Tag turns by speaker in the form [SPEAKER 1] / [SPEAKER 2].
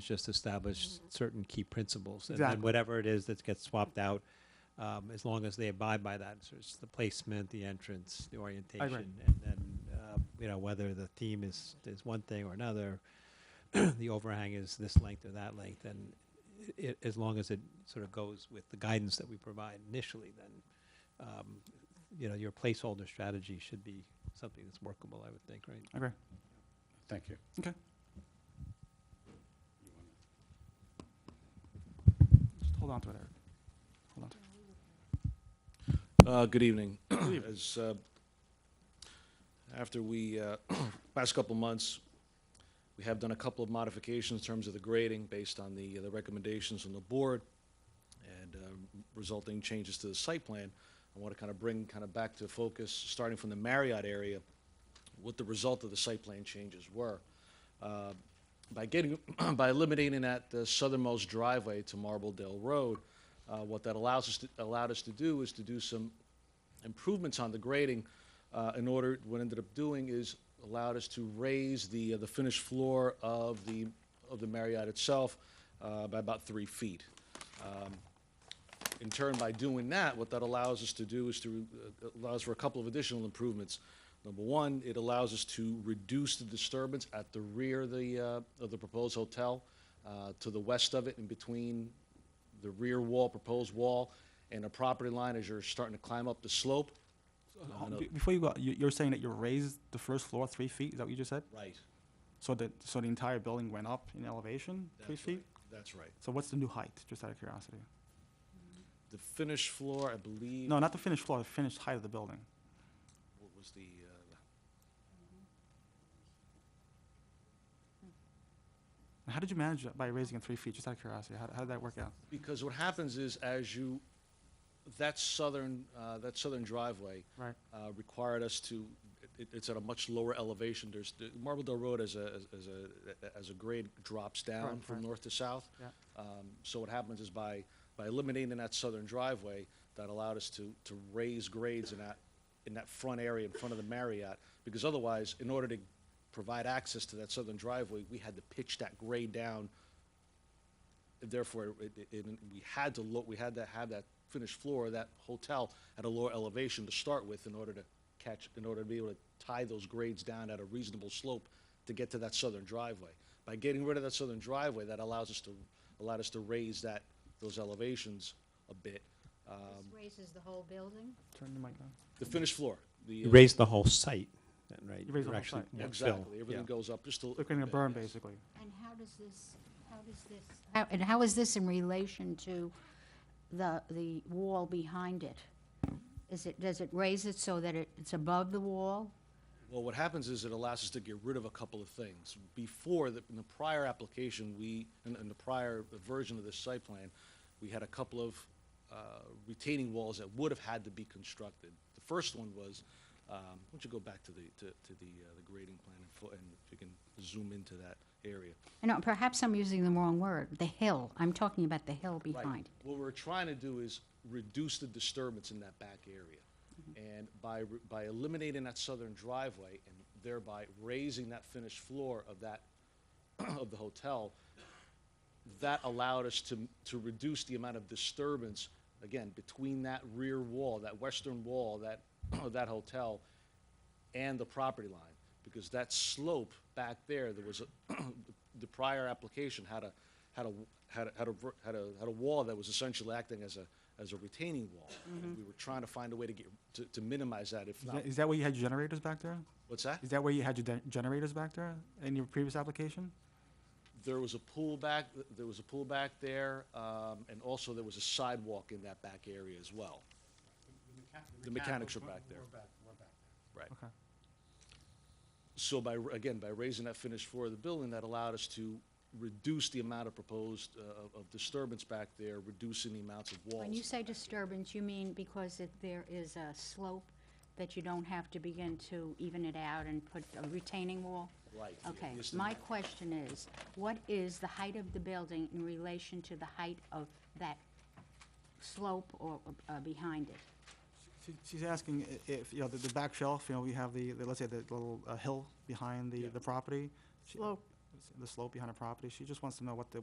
[SPEAKER 1] It's just establish
[SPEAKER 2] Mm-hmm.
[SPEAKER 1] certain key principles. And then
[SPEAKER 3] Exactly.
[SPEAKER 1] whatever it is that gets swapped out, um, as long as they abide by that. So it's the placement, the entrance, the orientation, and then, uh, you know, whether the theme is, is one thing or another, the overhang is this length or that length, and it, as long as it sort of goes with the guidance that we provide initially, then, um, you know, your placeholder strategy should be something that's workable, I would think, right?
[SPEAKER 3] Okay.
[SPEAKER 4] Thank you.
[SPEAKER 3] Okay. Just hold on to it, Eric. Hold on to it.
[SPEAKER 2] Uh, Good evening. As, uh, after we, uh, last couple months, we have done a couple of modifications in terms of the grading based on the, uh, the recommendations from the board and uh, resulting changes to the site plan. I want to kind of bring kind of back to focus, starting from the Marriott area, what the result of the site plan changes were. Uh, By getting, by eliminating that uh, southernmost driveway to Marble Dale Road, uh, what that allows us, to- allowed us to do is to do some improvements on the grading. uh, In order, what ended up doing is allowed us to raise the, uh, the finished floor of the, of the Marriott itself uh, by about three feet. Um, in turn, by doing that, what that allows us to do is to, uh, allows for a couple of additional improvements. Number one, it allows us to reduce the disturbance at the rear of the, uh, of the proposed hotel, uh, to the west of it, in between the rear wall, proposed wall, and the property line as you're starting to climb up the slope.
[SPEAKER 3] Ho-
[SPEAKER 2] no.
[SPEAKER 3] be- Before you go, you- you're saying that you raised the first floor three feet, is that what you just said?
[SPEAKER 2] Right.
[SPEAKER 3] So that, so the entire building went up in elevation, three feet?
[SPEAKER 2] That's right.
[SPEAKER 3] So what's the new height, just out of curiosity?
[SPEAKER 2] The finished floor, I believe,
[SPEAKER 3] No, not the finished floor, the finished height of the building.
[SPEAKER 2] what was the, uh,
[SPEAKER 3] And how did you manage that by raising it three feet, just out of curiosity? How, how did that work out?
[SPEAKER 2] because what happens is as you, that southern, uh, that southern driveway,
[SPEAKER 3] Right.
[SPEAKER 2] uh, required us to, it, it's at a much lower elevation. There's, the Marble Dell Road as a, as a, as a grade drops down
[SPEAKER 3] Right,
[SPEAKER 2] from
[SPEAKER 3] right.
[SPEAKER 2] north to south.
[SPEAKER 3] Yeah.
[SPEAKER 2] Um, So what happens is by, by eliminating that southern driveway, that allowed us to, to raise grades in that, in that front area in front of the Marriott. Because otherwise, in order to provide access to that southern driveway, we had to pitch that grade down. Therefore, it, it, it- we had to look, we had to have that finished floor, of that hotel at a lower elevation to start with in order to catch, in order to be able to tie those grades down at a reasonable slope to get to that southern driveway. By getting rid of that southern driveway, that allows us to, allowed us to raise that, those elevations a bit. Um,
[SPEAKER 5] This raises the whole building.
[SPEAKER 3] Turn the mic down.
[SPEAKER 2] The finished floor, the.
[SPEAKER 1] You
[SPEAKER 2] uh,
[SPEAKER 1] raise the whole site, then, right?
[SPEAKER 3] You raise
[SPEAKER 1] You're
[SPEAKER 3] the whole
[SPEAKER 1] actually
[SPEAKER 3] site,
[SPEAKER 1] more
[SPEAKER 3] yeah.
[SPEAKER 1] fill,
[SPEAKER 2] Exactly, everything
[SPEAKER 1] yeah.
[SPEAKER 2] goes up just a.
[SPEAKER 3] They're creating a
[SPEAKER 2] bit,
[SPEAKER 3] berm,
[SPEAKER 2] yes.
[SPEAKER 3] basically.
[SPEAKER 5] And how does this, how does this, how- and how is this in relation to the, the wall behind it? Is it, does it raise it so that it it's above the wall?
[SPEAKER 2] Well, what happens is it allows us to get rid of a couple of things. Before, the- in the prior application, we, in in the prior version of this site plan, we had a couple of uh, retaining walls that would have had to be constructed. The first one was, um, why don't you go back to the, to to the uh, the grading plan and fo- and if you can zoom into that area.
[SPEAKER 5] I know, perhaps I'm using the wrong word, the hill. I'm talking about the hill
[SPEAKER 2] Right.
[SPEAKER 5] behind.
[SPEAKER 2] What we're trying to do is reduce the disturbance in that back area. And by, re- by eliminating that southern driveway and thereby raising that finished floor of that, of the hotel, that allowed us to, to reduce the amount of disturbance, again, between that rear wall, that western wall, that, of that hotel, and the property line, because that slope back there, there was, a the prior application had a, had a, had a, had a, ver- had a, had a wall that was essentially acting as a, as a retaining wall. And we were trying to find a way to get, to, to minimize that, if
[SPEAKER 3] Mm-hmm. Is
[SPEAKER 2] not,
[SPEAKER 3] that- Is that where you had your generators back there?
[SPEAKER 2] what's that?
[SPEAKER 3] Is that where you had your de- generators back there in your previous application?
[SPEAKER 2] There was a pool back, there was a pool back there, um, and also there was a sidewalk in that back area as well. The mechanics are back there. Right.
[SPEAKER 3] Okay.
[SPEAKER 2] So by, r- again, by raising that finished floor of the building, that allowed us to reduce the amount of proposed, uh, of- of disturbance back there, reducing the amounts of walls.
[SPEAKER 5] When you say disturbance, you mean because it, there is a slope that you don't have to begin to even it out and put a retaining wall?
[SPEAKER 2] Right, yeah,
[SPEAKER 5] Okay,
[SPEAKER 2] just the-
[SPEAKER 5] my question is, what is the height of the building in relation to the height of that slope or, uh, behind it?
[SPEAKER 3] She- She's asking i- if, you know, the, the back shelf, you know, we have the, the- let's say the little uh, hill behind the, the property. She-
[SPEAKER 5] Slope.
[SPEAKER 3] the slope behind her property. She just wants to know what the